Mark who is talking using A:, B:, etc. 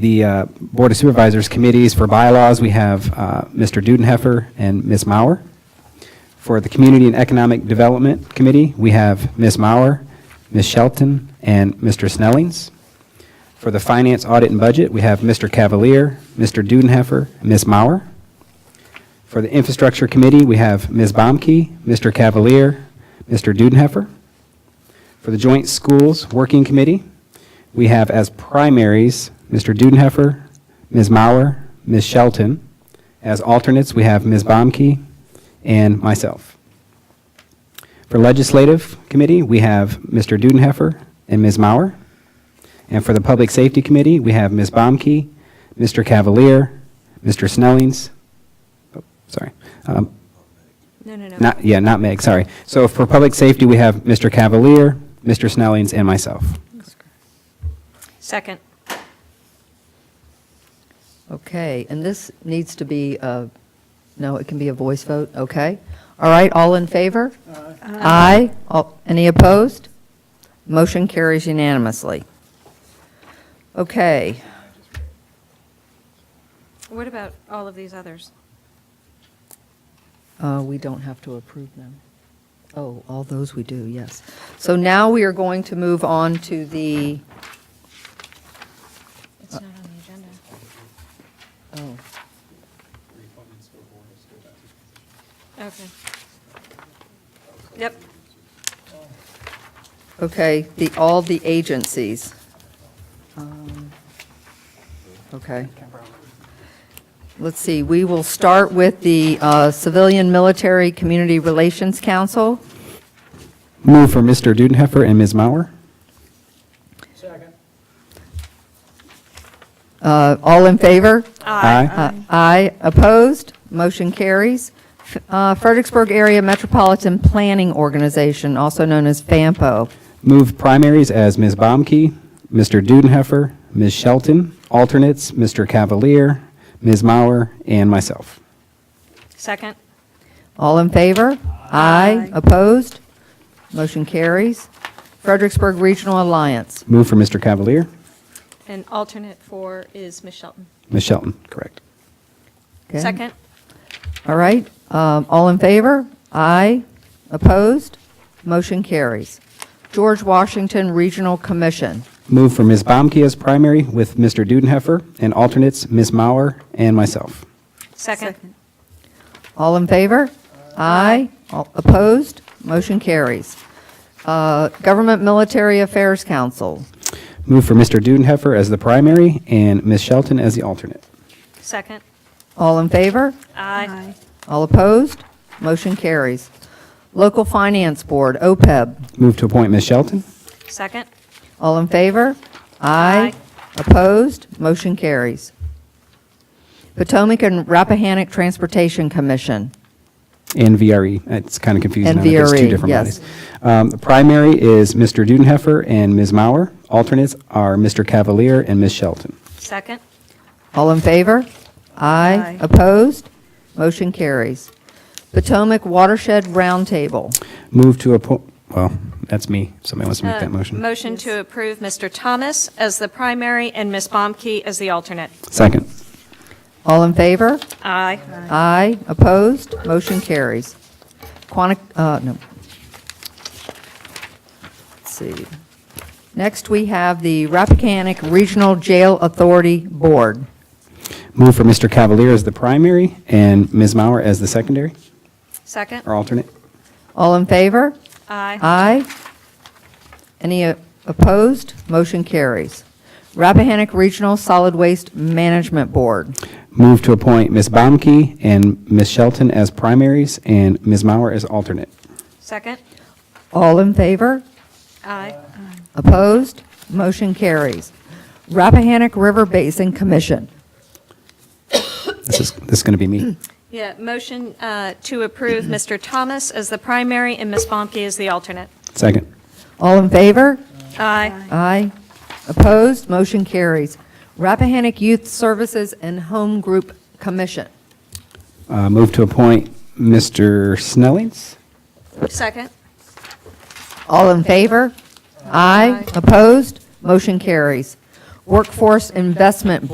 A: the uh, Board of Supervisors committees for bylaws, we have uh, Mr. Dudenheffer and Ms. Mauer. For the Community and Economic Development Committee, we have Ms. Mauer, Ms. Shelton, and Mr. Snellings. For the Finance Audit and Budget, we have Mr. Cavalier, Mr. Dudenheffer, Ms. Mauer. For the Infrastructure Committee, we have Ms. Bomke, Mr. Cavalier, Mr. Dudenheffer. For the Joint Schools Working Committee, we have as primaries Mr. Dudenheffer, Ms. Mauer, Ms. Shelton. As alternates, we have Ms. Bomke and myself. For Legislative Committee, we have Mr. Dudenheffer and Ms. Mauer. And for the Public Safety Committee, we have Ms. Bomke, Mr. Cavalier, Mr. Snellings, oh, sorry, um,
B: No, no, no.
A: not, yeah, not Meg, sorry. So for Public Safety, we have Mr. Cavalier, Mr. Snellings, and myself.
B: Second.
C: Okay, and this needs to be, uh, no, it can be a voice vote, okay? All right, all in favor? Aye. All- Any opposed? Motion carries unanimously. Okay,
B: What about all of these others?
C: uh, we don't have to approve them. Oh, all those we do, yes. So now we are going to move on to the,
B: It's not on the agenda.
C: oh,
B: Okay. Yep.
C: okay, the, all the agencies. Um, Okay. Let's see, we will start with the uh, Civilian Military Community Relations Council.
A: Move for Mr. Dudenheffer and Ms. Mauer.
C: Uh, All in favor?
A: Aye.
C: Uh, Aye. Opposed? Motion carries. F- uh, Fredericksburg Area Metropolitan Planning Organization, also known as FAMPO.
A: Move primaries as Ms. Baumke, Mr. Dudenheffer, Ms. Shelton, alternates Mr. Cavalier, Ms. Mauer, and myself.
B: Second.
C: All in favor? Aye. Opposed? Motion carries. Fredericksburg Regional Alliance.
A: Move for Mr. Cavalier,
B: And alternate four is Ms. Shelton.
A: Ms. Shelton, correct.
C: Okay.
B: Second.
C: All right, um, all in favor? Aye. Opposed? Motion carries. George Washington Regional Commission.
A: Move for Ms. Baumke as primary with Mr. Dudenheffer, and alternates Ms. Mauer and myself.
B: Second.
C: All in favor? Aye. All Opposed? Motion carries. Uh, Government Military Affairs Council.
A: Move for Mr. Dudenheffer as the primary and Ms. Shelton as the alternate.
B: Second.
C: All in favor?
B: Aye.
C: All opposed? Motion carries. Local Finance Board, E OPEB.
A: Move to appoint Ms. Shelton.
B: Second.
C: All in favor? Aye.
B: Aye.
C: Opposed? Motion carries. Potomac and Rappahannock Transportation Commission.
A: And VRE. It's kind of confusing.
C: And
A: now that there's two
C: VRE,
A: different
C: yes.
A: bodies. Um, The primary is Mr. Dudenheffer and Ms. Mauer. Alternates are Mr. Cavalier and Ms. Shelton.
B: Second.
C: All in favor?
B: Aye.
C: Aye. Opposed? Motion carries. Potomac Watershed Roundtable.
A: Move to appoint, well, that's me. Somebody wants to make
B: Uh,
A: that motion.
B: Motion to approve Mr. Thomas as the primary and Ms. Bomke as the alternate.
A: Second.
C: All in favor?
B: Aye.
C: Aye. Opposed? Motion carries. Quanti, uh, no. Let's see. Next, we have the Rappahannock Regional Jail Authority Board.
A: Move for Mr. Cavalier as the primary and Ms. Mauer as the secondary
B: Second.
A: or alternate.
C: All in favor?
B: Aye.
C: Aye. Any uh, opposed? Motion carries. Rappahannock Regional Solid Waste Management Board.
A: Move to appoint Ms. Baumke and Ms. Shelton as primaries and Ms. Mauer as alternate.
B: Second.
C: All in favor?
B: Aye.
C: Opposed? Motion carries. Rappahannock River Basin Commission.
A: This is, this is going to be me.
B: Yeah, motion uh, to approve Mr. Thomas as the primary and Ms. Bomke as the alternate.
A: Second.
C: All in favor?
B: Aye.
C: Aye. Opposed? Motion carries. Rappahannock Youth Services and Home Group Commission.
A: Uh, Move to appoint Mr. Snellings.
B: Second.
C: All in favor? Aye. Opposed? Motion carries. Workforce Investment